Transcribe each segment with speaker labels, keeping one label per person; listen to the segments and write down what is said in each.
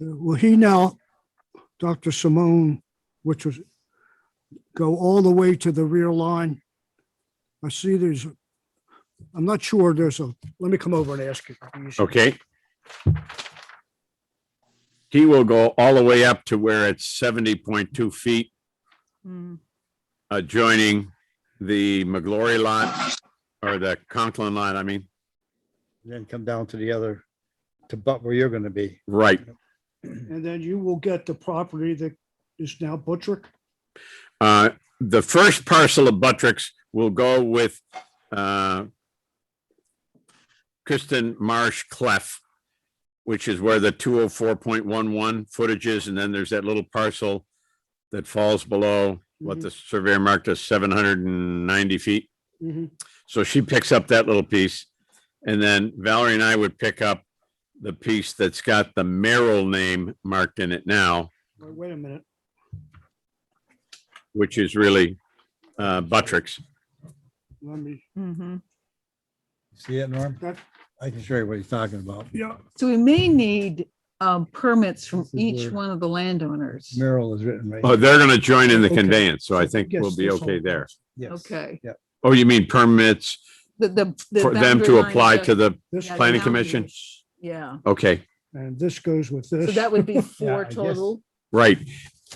Speaker 1: Will he now, Dr. Simone, which was, go all the way to the rear line? I see there's, I'm not sure there's a, let me come over and ask you.
Speaker 2: Okay. He will go all the way up to where it's seventy point two feet
Speaker 3: Mm,
Speaker 2: adjoining the McGlory lot or the Conklin lot, I mean,
Speaker 4: Then come down to the other, to but where you're gonna be.
Speaker 2: right.
Speaker 1: And then you will get the property that is now Buttrick?
Speaker 2: Uh, the first parcel of Buttricks will go with, uh, Kristen Marsh Clef, which is where the two oh four point one one footage is, and then there's that little parcel that falls below
Speaker 1: Mm-hmm.
Speaker 2: what the surveyor marked as seven hundred and ninety feet.
Speaker 1: Mhm.
Speaker 2: So she picks up that little piece. And then Valerie and I would pick up the piece that's got the Merrill name marked in it now,
Speaker 1: Mm-hmm. Wait wait a minute.
Speaker 2: which is really uh Buttricks.
Speaker 1: Let me,
Speaker 3: mhm.
Speaker 4: See it, Norm?
Speaker 1: That-
Speaker 4: I can show you what he's talking about.
Speaker 1: yeah,
Speaker 3: So we may need um, permits from
Speaker 4: This is
Speaker 3: each
Speaker 4: where-
Speaker 3: one of the landowners.
Speaker 4: Merrill is written right.
Speaker 2: Oh, they're gonna join in the
Speaker 1: Okay.
Speaker 2: conveyance, so I think
Speaker 1: Yes,
Speaker 2: we'll be
Speaker 1: this whole
Speaker 2: okay there.
Speaker 4: Yes.
Speaker 3: Okay.
Speaker 2: Oh, you mean permits
Speaker 3: The, the. the
Speaker 2: for them
Speaker 3: boundary
Speaker 2: to
Speaker 3: line
Speaker 2: apply
Speaker 3: of-
Speaker 2: to the,
Speaker 1: this
Speaker 3: Yeah,
Speaker 2: planning
Speaker 3: the
Speaker 2: commission?
Speaker 3: boundaries. Yeah,
Speaker 2: okay,
Speaker 1: And this goes with this.
Speaker 3: so that would be
Speaker 4: I
Speaker 3: four
Speaker 4: guess.
Speaker 3: total.
Speaker 2: right.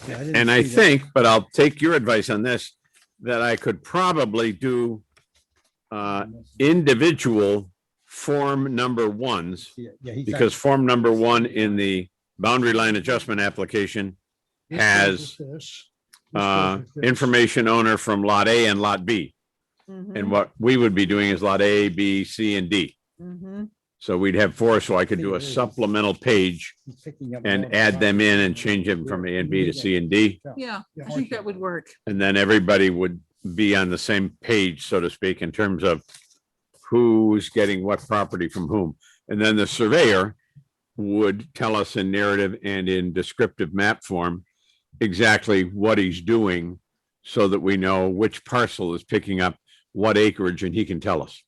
Speaker 4: Yeah, didn't
Speaker 2: And I
Speaker 4: see that.
Speaker 2: think, uh, but I'll take your advice on this, that I could probably do uh individual form number ones
Speaker 4: Yeah, yeah, he's-
Speaker 2: because form number one in the boundary line adjustment application
Speaker 1: This goes
Speaker 2: has,
Speaker 1: with this. This
Speaker 2: uh,
Speaker 1: goes with this.
Speaker 2: information owner from lot A and lot B. And
Speaker 3: Mhm,
Speaker 2: what we would be doing is lot A, B, C, and D.
Speaker 3: mhm.
Speaker 2: So we'd have four, so I could do a supplemental page
Speaker 4: he's picking up more
Speaker 2: and
Speaker 4: of
Speaker 2: add
Speaker 4: that.
Speaker 2: them in and change them from A and B to C and D.
Speaker 3: Yeah,
Speaker 1: Yeah.
Speaker 3: I think that would work.
Speaker 2: And then everybody would be on the same page, so to speak, in terms of who's getting what property from whom. And then the surveyor would tell us in narrative and in descriptive map form exactly what he's doing so that we know which parcel is picking up what acreage and he can tell us.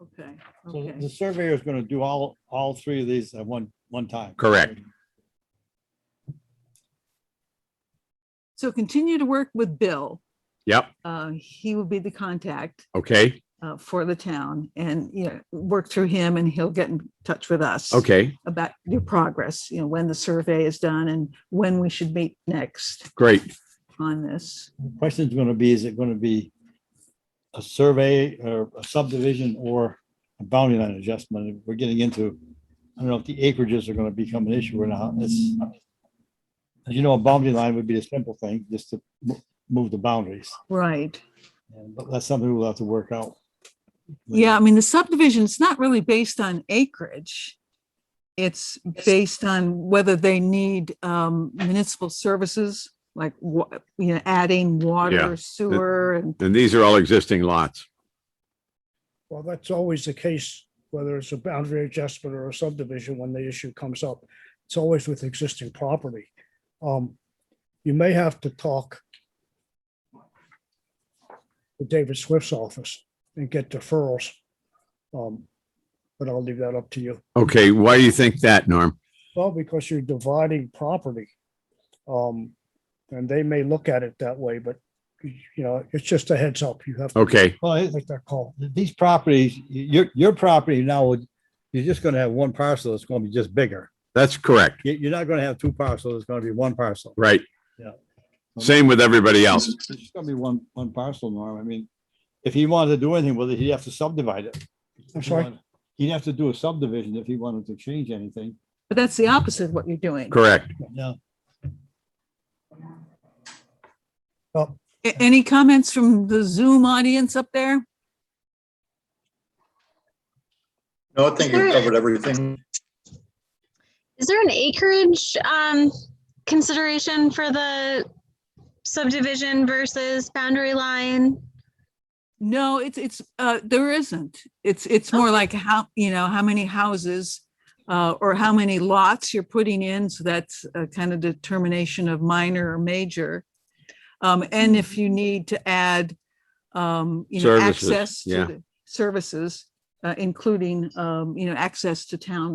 Speaker 3: Okay,
Speaker 5: So
Speaker 3: okay.
Speaker 5: the surveyor is gonna do all, all three of these at one, one time.
Speaker 2: Correct.
Speaker 3: So continue to work with Bill.
Speaker 2: Yep,
Speaker 3: Uh, He will be the contact
Speaker 2: okay,
Speaker 3: uh, for the town and, you know, work through him and he'll get in touch with us.
Speaker 2: okay,
Speaker 3: About your progress, you know, when the survey is done and when we should meet next
Speaker 2: great.
Speaker 3: on this.
Speaker 5: The Question's gonna be, is it gonna be a survey or a subdivision or a boundary line adjustment? We're getting into, I don't know if the acreages are gonna become an issue or not. It's, as you know, a boundary line would be a simple thing, just to mo- move the boundaries.
Speaker 3: Right.
Speaker 5: And- But that's something we'll have to work out.
Speaker 3: Yeah, I mean, the subdivision, it's not really based on acreage. It's based on whether they need um, municipal services, like, wa- you know, adding
Speaker 2: Yeah.
Speaker 3: water, sewer and
Speaker 2: And these are all existing lots.
Speaker 1: Well, that's always the case, whether it's a boundary adjustment or a subdivision, when the issue comes up, it's always with existing property. Um, you may have to talk with David Swift's office and get deferrals. Um, but I'll leave that up to you.
Speaker 2: Okay, why do you think that, Norm?
Speaker 1: Well, because you're dividing property. Um, and they may look at it that way, but you know, it's just a heads up. You have to
Speaker 2: Okay.
Speaker 5: Well, it-
Speaker 1: make that call.
Speaker 5: these
Speaker 4: Properties, your, your property now, would- you're just gonna have one parcel, it's gonna be just bigger.
Speaker 2: That's correct,
Speaker 4: You- You're not gonna have two parcels, it's gonna be one parcel.
Speaker 2: right?
Speaker 5: Yeah.
Speaker 2: Same with everybody else.
Speaker 5: It's just gonna be one, one parcel, Norm. I mean, if he wanted to do anything with it, he'd have to subdivide it.
Speaker 1: I'm sorry?
Speaker 5: He'd have to do a subdivision if he wanted to change anything.
Speaker 3: But that's the opposite of what you're doing.
Speaker 2: Correct.
Speaker 5: Yeah.
Speaker 3: A- Any comments from the Zoom audience up there?
Speaker 6: No, I think you covered everything.
Speaker 7: Is there an acreage um, consideration for the subdivision versus boundary line?
Speaker 3: No, it's, it's, uh, there isn't. It's, it's more like how, you know, how many houses uh, or how many lots you're putting in. So that's a kind of determination of minor or major. Um, and if you need to add, um, you know,
Speaker 2: Mm-hmm. Services,
Speaker 3: access to
Speaker 2: yeah.
Speaker 3: the services, uh, including, um, you know, access to town